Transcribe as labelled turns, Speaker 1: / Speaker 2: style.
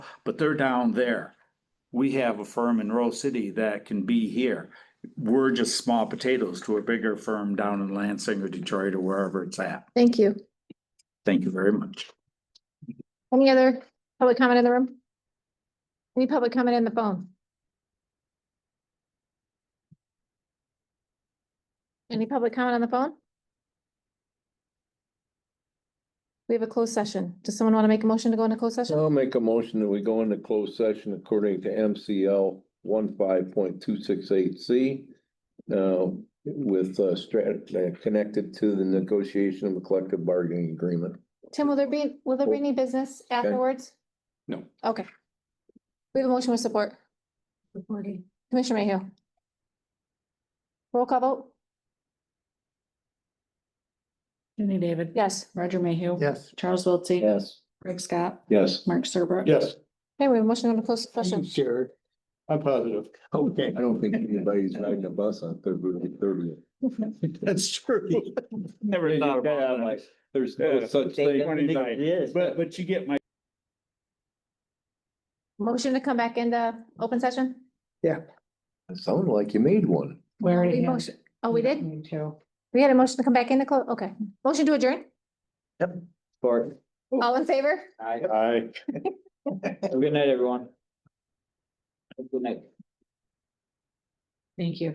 Speaker 1: but they're down there. We have a firm in Rose City that can be here. We're just small potatoes to a bigger firm down in Lansing or Detroit or wherever it's at.
Speaker 2: Thank you.
Speaker 1: Thank you very much.
Speaker 2: Any other public comment in the room? Any public comment in the phone? Any public comment on the phone? We have a closed session. Does someone want to make a motion to go into closed session?
Speaker 3: I'll make a motion that we go into closed session according to MCL one point two six eight C. Uh, with uh strat, uh, connected to the negotiation of a collective bargaining agreement.
Speaker 2: Tim, will there be, will there be any business afterwards?
Speaker 3: No.
Speaker 2: Okay. We have a motion with support.
Speaker 4: Reporting.
Speaker 2: Commissioner Mayhew. Roll call vote?
Speaker 4: Jenny David.
Speaker 2: Yes.
Speaker 4: Roger Mayhew.
Speaker 5: Yes.
Speaker 4: Charles Wiltie.
Speaker 3: Yes.
Speaker 4: Greg Scott.
Speaker 3: Yes.
Speaker 4: Mark Serbrook.
Speaker 5: Yes.
Speaker 2: Okay, we have a motion on the closed session.
Speaker 5: Sure. I'm positive. Okay.
Speaker 3: I don't think anybody's riding a bus on February thirtieth.
Speaker 5: That's true.
Speaker 1: Never
Speaker 3: thought about that. There's no such thing.
Speaker 1: But, but you get my
Speaker 2: Motion to come back into open session?
Speaker 3: Sound like you made one.
Speaker 4: We already
Speaker 2: We
Speaker 4: had-
Speaker 2: motion- Oh, we did?
Speaker 4: Me too.
Speaker 2: We had a motion to come back into close, okay. Motion to adjourn?
Speaker 3: Bart.
Speaker 2: All in favor?
Speaker 5: Aye.
Speaker 6: Have a Good night, everyone. Have a Good night.
Speaker 4: Thank you.